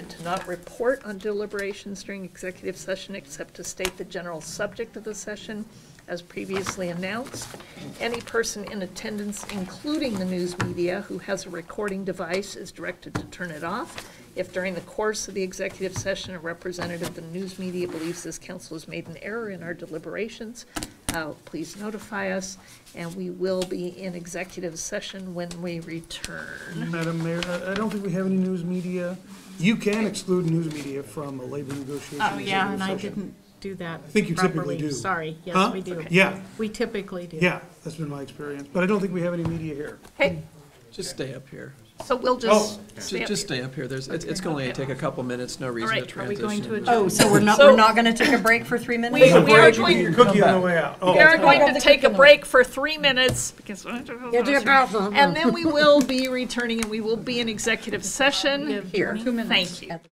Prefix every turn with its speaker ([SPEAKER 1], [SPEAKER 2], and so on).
[SPEAKER 1] not report on deliberations during executive session except to state the general subject of the session as previously announced. Any person in attendance, including the news media, who has a recording device is directed to turn it off. If during the course of the executive session, a representative of the news media believes this council has made an error in our deliberations, uh, please notify us, and we will be in executive session when we return.
[SPEAKER 2] Madam Mayor, I I don't think we have any news media. You can exclude news media from a labor negotiation.
[SPEAKER 3] Oh, yeah, and I
[SPEAKER 2] executive session.
[SPEAKER 3] didn't do that
[SPEAKER 2] think you typically
[SPEAKER 3] properly.
[SPEAKER 2] do.
[SPEAKER 3] Sorry,
[SPEAKER 2] Huh?
[SPEAKER 3] yes, we do.
[SPEAKER 2] Yeah,
[SPEAKER 3] We typically do.
[SPEAKER 2] yeah, that's been my experience, but I don't think we have any media here.
[SPEAKER 1] Okay,
[SPEAKER 4] Just stay up here.
[SPEAKER 1] so we'll just.
[SPEAKER 4] Ju- Just stay up here. There's, it's it's gonna only take a couple minutes, no reason to
[SPEAKER 1] right, are we
[SPEAKER 4] transition.
[SPEAKER 1] going to adjourn?
[SPEAKER 5] Oh, so we're not, we're not gonna take a break for three minutes?
[SPEAKER 1] We, we are
[SPEAKER 2] You can eat your
[SPEAKER 1] going,
[SPEAKER 2] cookie on the way out.
[SPEAKER 1] we
[SPEAKER 2] Oh,
[SPEAKER 1] are going to take a break for three minutes because. And then we will be returning and we will be in executive session.
[SPEAKER 5] Here.
[SPEAKER 1] Thank you.